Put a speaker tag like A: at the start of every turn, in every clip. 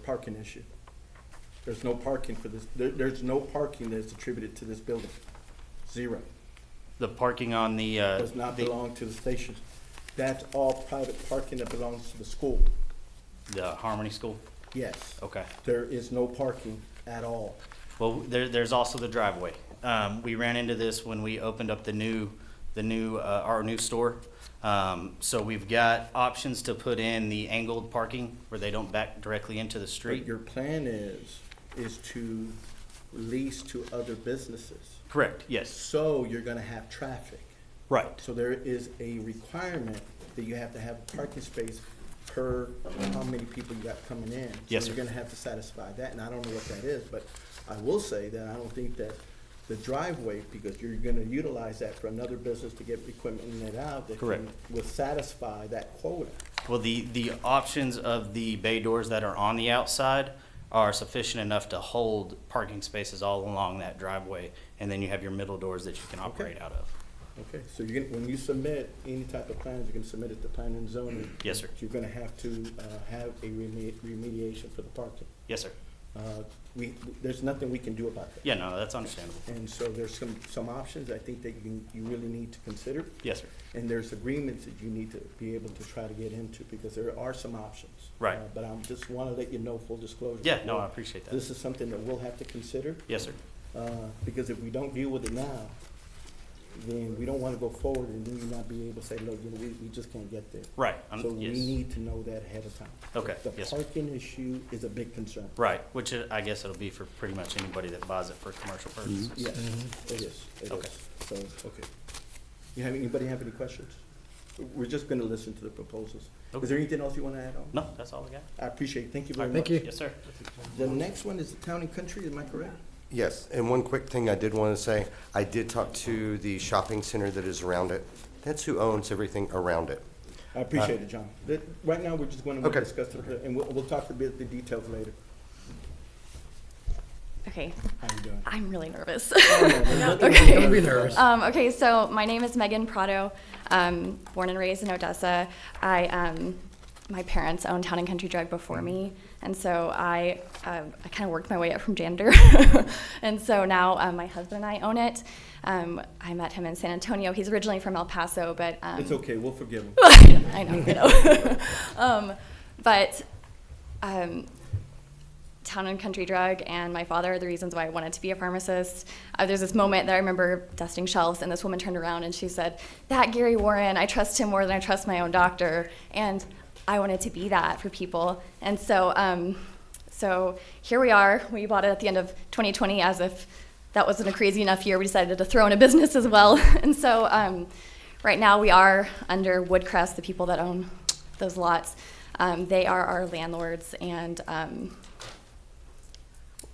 A: parking issue. There's no parking for this, there, there's no parking that's attributed to this building. Zero.
B: The parking on the, uh,
A: Does not
B: the-
A: belong to the station. That's all private parking that belongs to the school.
B: the Harmony School?
A: Yes.
B: Okay.
A: There is no parking at all.
B: Well, there, there's also the driveway. Um, we ran into this when we opened up the new, the new, uh, our new store. Um, so we've got options to put in the angled parking where they don't back directly into the
A: But
B: street.
A: your plan is, is to lease to other businesses.
B: Correct, yes.
A: So you're gonna have traffic.
B: Right.
A: So there is a requirement that you have to have a parking space per how many people you got coming in. So
B: Yes, sir.
A: You're gonna have to satisfy that, and I don't know what that is, but I will say that I don't think that the driveway, because you're gonna utilize that for another business to get equipment in and out, that
B: Correct.
A: can- will satisfy that quota.
B: Well, the, the options of the bay doors that are on the outside are sufficient enough to hold parking spaces all along that driveway. And then you have your middle doors that you can operate out of.
A: Okay, so you're gonna, when you submit any type of plans, you're gonna submit it to planning and zoning.
B: Yes, sir.
A: You're gonna have to, uh, have a reme- remediation for the parking.
B: Yes, sir.
A: Uh, we, there's nothing we can do about that.
B: Yeah, no, that's understandable.
A: And so there's some, some options I think that you, you really need to consider.
B: Yes, sir.
A: And there's agreements that you need to be able to try to get into because there are some options.
B: Right.
A: Uh, But I'm just wanna let you know, full disclosure.
B: Yeah, no, I appreciate that.
A: This is something that we'll have to consider,
B: Yes, sir.
A: uh, because if we don't deal with it now, then we don't wanna go forward and then you not be able to say, look, you know, we, we just can't get there.
B: Right, I'm-
A: So we
B: yes.
A: need to know that ahead of time.
B: Okay,
A: The
B: yes, sir.
A: parking issue is a big concern.
B: Right, which it- I guess it'll be for pretty much anybody that buys it for commercial purposes.
A: Yes, it is, it
B: Mm-hmm. Okay.
A: is. So, okay. You have, anybody have any questions? We're just gonna listen to the proposals.
B: Okay.
A: Is there anything else you wanna add on?
B: No, that's all I got.
A: I appreciate it, thank you very much.
C: Thank you.
B: Yes, sir.
A: The next one is the town and country, am I correct?
D: Yes, and one quick thing I did want to say, I did talk to the shopping center that is around it. That's who owns everything around it.
B: Uh,
A: I appreciate it, John. That- Right now, we're just going to
D: Okay.
A: discuss it, and we'll, we'll talk a bit the details later.
E: Okay,
A: How you doing?
E: I'm really nervous.
C: Oh,
A: Okay.
C: Don't be nervous.
E: um, okay, so my name is Megan Prado. Um, born and raised in Odessa. I um, my parents owned Town and Country Drug before me, and so I um, I kind of worked my way up from janitor, and so now um, my husband and I own it. Um, I met him in San Antonio. He's originally from El Paso, but um,
A: It's okay, we'll forgive him.
E: I know, I know. um, but um, town and country drug and my father are the reasons why I wanted to be a pharmacist. Uh, there's this moment that I remember dusting shelves, and this woman turned around and she said, "That Gary Warren, I trust him more than I trust my own doctor," and I wanted to be that for people. And so, um, so here we are. We bought it at the end of 2020, as if that wasn't a crazy enough year. We decided to throw in a business as well, and so. Um, Right now, we are under Woodcrest, the people that own those lots. Um, they are our landlords, and um,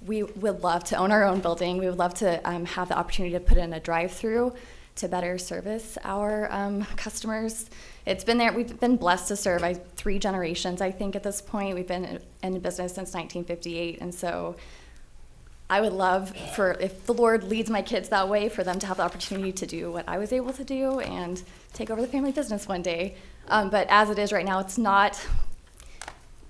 E: we would love to own our own building. We would love to um, have the opportunity to put in a drive-through to better service our um, customers. It's been there. We've been blessed to serve I, three generations, I think, at this point. We've been in business since 1958, and so I would love for if the Lord leads my kids that way, for them to have the opportunity to do what I was able to do and take over the family business one day. Um, but as it is right now, it's not.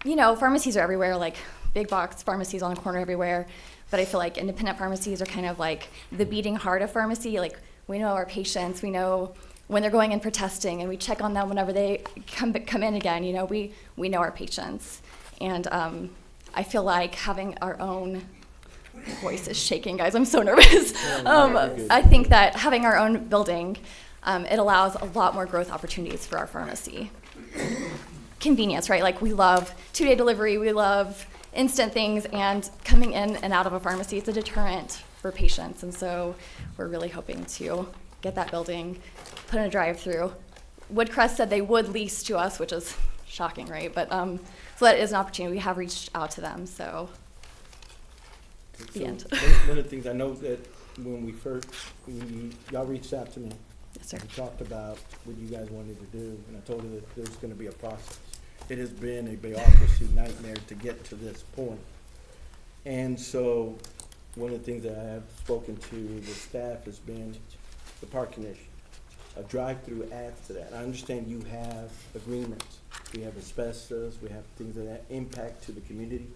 E: You know, pharmacies are everywhere, like big box pharmacies on the corner everywhere. But I feel like independent pharmacies are kind of like the beating heart of pharmacy. Like we know our patients, we know when they're going in for testing, and we check on them whenever they come come in again. You know, we we know our patients, and um, I feel like having our own voice is shaking, guys. I'm so nervous. Um, I think that having our own building, um, it allows a lot more growth opportunities for our pharmacy. Convenience, right? Like we love two-day delivery, we love instant things, and coming in and out of a pharmacy is a deterrent for patients. And so we're really hoping to get that building, put in a drive-through. Woodcrest said they would lease to us, which is shocking, right? But um, so that is an opportunity. We have reached out to them, so The
A: So,
E: end.
A: one- One of the things, I know that when we first, when you, y'all reached out to me,
E: yes, sir.
A: We talked about what you guys wanted to do, and I told you that there's gonna be a process. It has been a bureaucracy nightmare to get to this point. And so, one of the things that I have spoken to the staff has been the parking issue. A drive-through adds to that. I understand you have agreements. We have asbestos, we have things of that impact to the community.